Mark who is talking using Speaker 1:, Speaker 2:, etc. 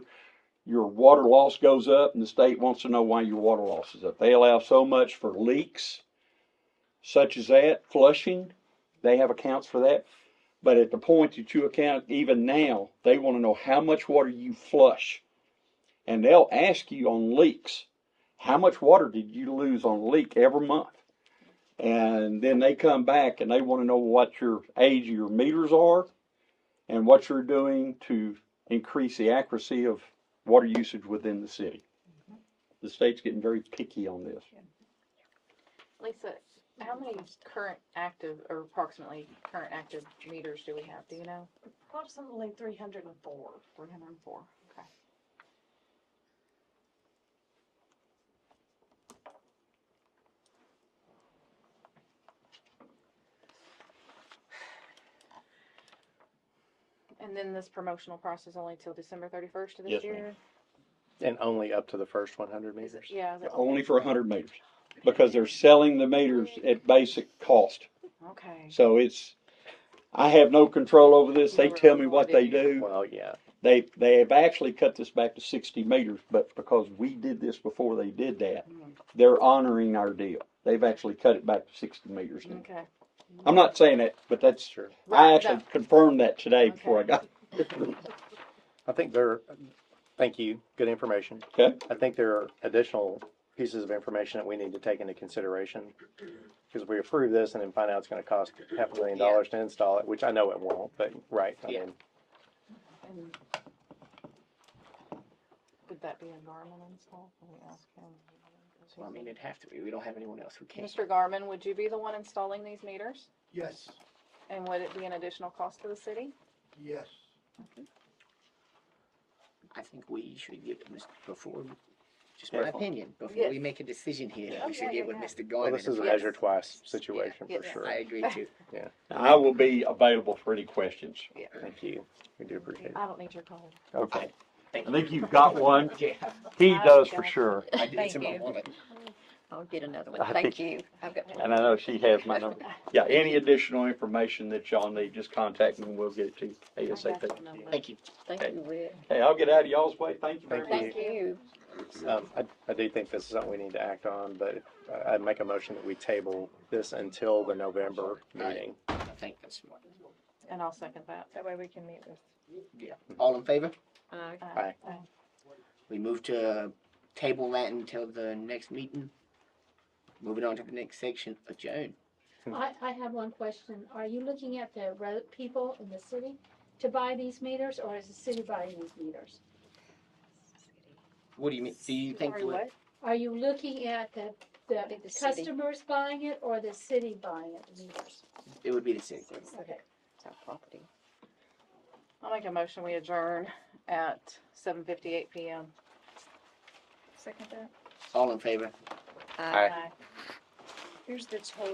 Speaker 1: your water loss goes up, and the state wants to know why your water loss is up. They allow so much for leaks, such as that, flushing. They have accounts for that. But at the point that you account, even now, they want to know how much water you flush. And they'll ask you on leaks, how much water did you lose on leak every month? And then they come back and they want to know what your age of your meters are and what you're doing to increase the accuracy of water usage within the city. The state's getting very picky on this.
Speaker 2: Lisa, how many current active, or approximately current active meters do we have, do you know?
Speaker 3: Approximately three hundred and four.
Speaker 2: Three hundred and four, okay. And then this promotional process only till December thirty-first of
Speaker 1: Yes,
Speaker 2: this
Speaker 1: ma'am.
Speaker 2: year?
Speaker 4: And only up to the first one hundred
Speaker 2: Is
Speaker 4: meters?
Speaker 2: it, yeah, is it?
Speaker 1: Only for hundred meters, because they're selling the meters at basic cost.
Speaker 2: Okay,
Speaker 1: So it's, I have no control over this. They tell me what they do.
Speaker 4: Well, yeah,
Speaker 1: They, they have actually cut this back to sixty meters, but because we did this before they did that, they're honoring our deal. They've actually cut it back to sixty meters now.
Speaker 2: okay.
Speaker 1: I'm not saying that, but that's,
Speaker 4: sure.
Speaker 1: I
Speaker 2: Right, no.
Speaker 1: actually confirmed that today before I
Speaker 2: Okay.
Speaker 1: got,
Speaker 4: I think there, thank you, good information.
Speaker 1: Okay.
Speaker 4: I think there are additional pieces of information that we need to take into consideration. Because we approve this and then find out it's gonna cost half a million
Speaker 2: Yeah.
Speaker 4: dollars to install it, which I know it won't, but, right, I
Speaker 2: Yeah.
Speaker 4: mean,
Speaker 2: And Would that be a Garmin install? Let me ask him.
Speaker 5: Well, I mean, it'd have to be. We don't have anyone else who can.
Speaker 2: Mr. Garmin, would you be the one installing these meters?
Speaker 6: Yes,
Speaker 2: And would it be an additional cost to the city?
Speaker 6: yes.
Speaker 5: I think we should get Mr. before, just my
Speaker 4: Careful.
Speaker 5: opinion, before we
Speaker 2: Yes.
Speaker 5: make a decision here,
Speaker 2: Oh,
Speaker 5: we should
Speaker 2: yeah,
Speaker 5: get
Speaker 2: yeah,
Speaker 5: with
Speaker 2: yeah.
Speaker 5: Mr.
Speaker 4: well,
Speaker 5: Garman.
Speaker 4: this is a
Speaker 5: about
Speaker 4: measure
Speaker 5: this.
Speaker 4: twice situation for
Speaker 2: yeah.
Speaker 4: sure.
Speaker 5: I agree too.
Speaker 1: I will be available for any questions.
Speaker 4: Thank you, we do appreciate it.
Speaker 2: I don't need your card.
Speaker 4: Okay,
Speaker 5: Thank
Speaker 1: I
Speaker 5: you.
Speaker 1: think you've got one.
Speaker 5: Yeah,
Speaker 1: He
Speaker 7: I've
Speaker 1: does for
Speaker 7: got-
Speaker 1: sure.
Speaker 5: I did it's in my
Speaker 7: Thank you.
Speaker 5: wallet.
Speaker 7: I'll get another
Speaker 1: I
Speaker 7: one. Thank
Speaker 1: think-
Speaker 7: you. I've got one.
Speaker 1: And I know she has my number. Yeah, any additional information that y'all need, just contact me and we'll get it to you ASAP.
Speaker 5: Thank you.
Speaker 7: Thank you, Rick.
Speaker 1: Hey, I'll get out of y'all's way. Thank you very much.
Speaker 2: Thank
Speaker 7: Thank
Speaker 2: you.
Speaker 7: you.
Speaker 4: um, I, I do think this is something we need to act on, but I, I'd make a motion that we table this until the November meeting.
Speaker 5: I think that's smart.
Speaker 4: Mm-hmm.
Speaker 2: And I'll second that. That way we can meet with.
Speaker 5: Yeah. All in favor?
Speaker 7: Aye.
Speaker 2: uh,
Speaker 4: Aye.
Speaker 2: uh,
Speaker 5: We move to uh, table that until the next meeting. Moving on to the next section, adjourn.
Speaker 8: I, I have one question. Are you looking at the re- people in the city to buy these meters, or is the city buying these meters?
Speaker 5: What do you mean? Do you think?
Speaker 2: Sorry,
Speaker 5: we're-
Speaker 2: what?
Speaker 8: Are you looking at the,
Speaker 7: I
Speaker 8: the
Speaker 7: think the city.
Speaker 8: customers buying it or the city buying it, the meters?
Speaker 5: It would be the same.
Speaker 8: Okay.
Speaker 7: It's our property.
Speaker 2: I'll make a motion, we adjourn at seven fifty-eight PM.
Speaker 7: Second that.
Speaker 5: All in favor?
Speaker 4: Aye.
Speaker 7: Uh,
Speaker 2: Aye.
Speaker 7: Here's the total.